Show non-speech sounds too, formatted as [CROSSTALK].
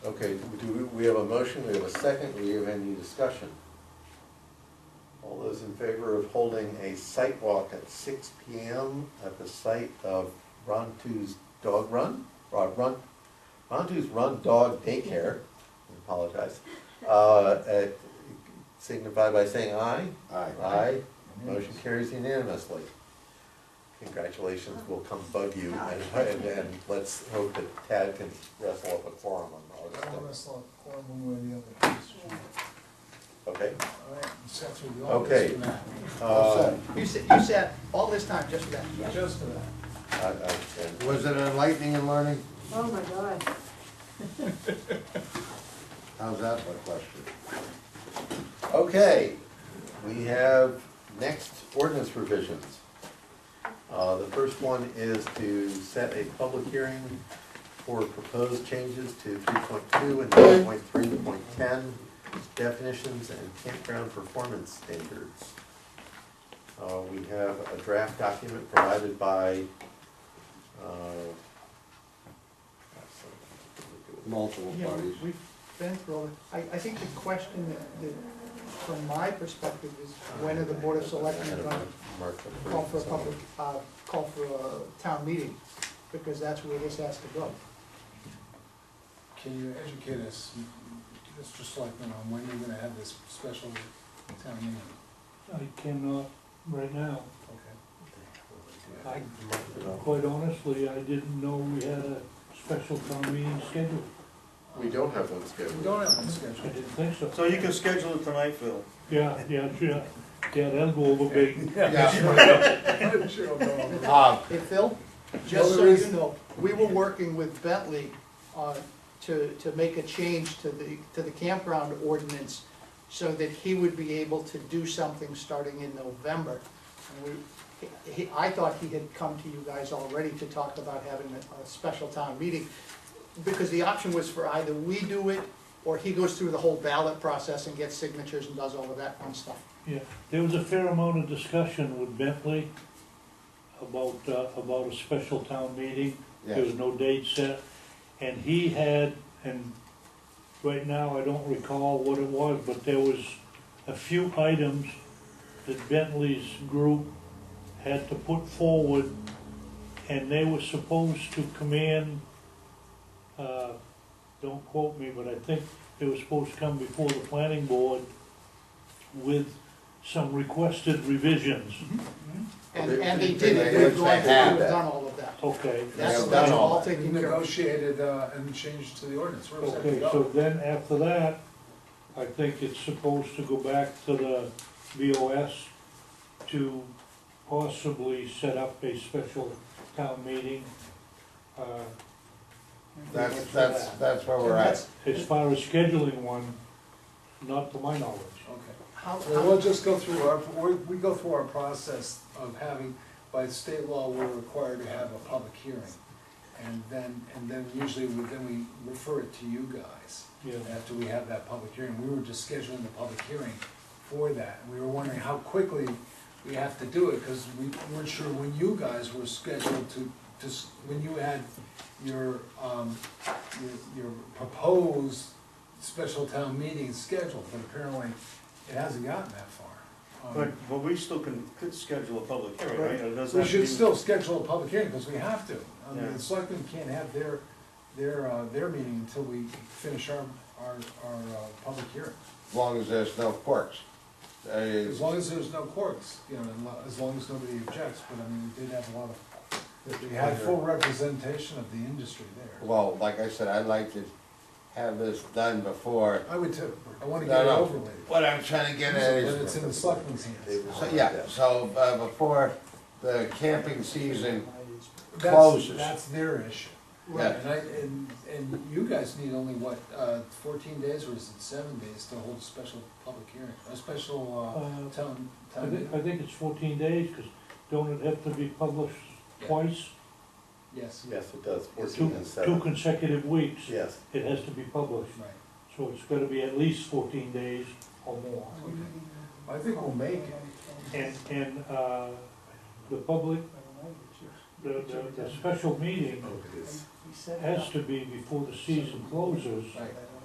Okay, do we, we have a motion, we have a second, we have any discussion? All those in favor of holding a site walk at six P M at the site of Rontu's Dog Run? Or Run, Rontu's Run Dog Daycare, I apologize, uh, at- signify by saying aye? Aye. Aye, motion carries unanimously. Congratulations, we'll come bug you, and, and, and let's hope that Tad can wrestle up a quorum on August I'll tenth. wrestle a corn one way or the other. Okay? All right, and set through the Okay. office for that. Uh, You said, you said all this time just for that. Just for that. I, I, and Was it enlightening and learning? Oh, my God. How's that for a question? Okay, we have next ordinance provisions. Uh, the first one is to set a public hearing for proposed changes to three point two and three point three point ten definitions and campground performance standards. Uh, we have a draft document provided by, uh, Multiple Yeah, we- parties. we've been through all, the- I, I think the question that, that, from my perspective, is when are the board of selectmen going to Mark the call for a first. public, uh, call for a town meeting? Because that's where this has to go. Can you educate us, Mr. Selectman, on when you're gonna have this special town meeting? I cannot right now. Okay. I, quite honestly, I didn't know we had a special town meeting scheduled. We don't have one We scheduled. don't have one I scheduled. didn't [LAUGHS] think so. So you can schedule it tonight, Phil. Yeah, yeah, yeah, yeah, that'll go over big. Yeah. Sure, I'll go on. Uh, Hey, Phil, just so you know, we were working with Bentley, uh, to, to make a change to the, to the campground ordinance so that he would be able to do something starting in November. And we, he, I thought he had come to you guys already to talk about having a, a special town meeting. Because the option was for either we do it, or he goes through the whole ballot process and gets signatures and does all of that fun stuff. Yeah, there was a fair amount of discussion with Bentley about, uh, about a special town meeting. There was no date set, and he had, and right now I don't recall what it was, but there was a few items that Bentley's group had to put forward, and they were supposed to come in, uh, don't quote me, but I think they were supposed to come before the planning board with some requested revisions. And, Well, they- and they- they did they- it, they we've gone, had through and that. done all of that. Okay, That's, They've that's done all all that. We taken care of. Negotiated, uh, and changed to the ordinance, where was that Okay, so go? then after that, I think it's supposed to go back to the BOS to possibly set up a special town meeting. uh, That's, that's, that's where we're at. That's- As far as scheduling one, not to my knowledge. Okay. How, Well, we'll how, just go through our, we, we go through our process of having, by state law, we're required to have a public hearing. And then, and then usually, we- then we refer it to you guys, Yeah. after we have that public hearing. We were just scheduling the public hearing for that, and we were wondering how quickly we have to do it, because we weren't sure when you guys were scheduled to, to, s- when you had your, um, your, your proposed special town meeting scheduled, but apparently it hasn't gotten that far. But, Um, but we still can, could schedule a public hearing, right? It doesn't We have to should be- still schedule a public hearing, because we have to. I mean, Yeah. the selectmen can't have their, their, uh, their meeting until we finish our, our, our, uh, public hearing. As long as there's no quirks. Uh, As long as there's no courts, you know, and lo- as long as nobody objects, but I mean, we did have a lot of, we had full representation of the industry there. Well, like I said, I'd like to have this done before. I would too, I wanna No, get it no. over with. What I'm trying to get at But is, it's in the selectmen's hands. so, yeah, so, uh, before the camping season, That's- Closes. That's their issue. yeah, And I, and, and you guys need only what, uh, fourteen days or is it seven days to hold a special public hearing, a special, uh, town, Uh, I town think, meeting? I think it's fourteen days, because don't it have to be published twice? Yes, Yes, it does, fourteen Two, and two seven. consecutive weeks, Yes, it has to be published. right. So it's gotta be at least fourteen days or more. I think we'll make it. And, and, uh, the public the, the, the special meeting Oh, it is. He said- has to be before the season closes. Right.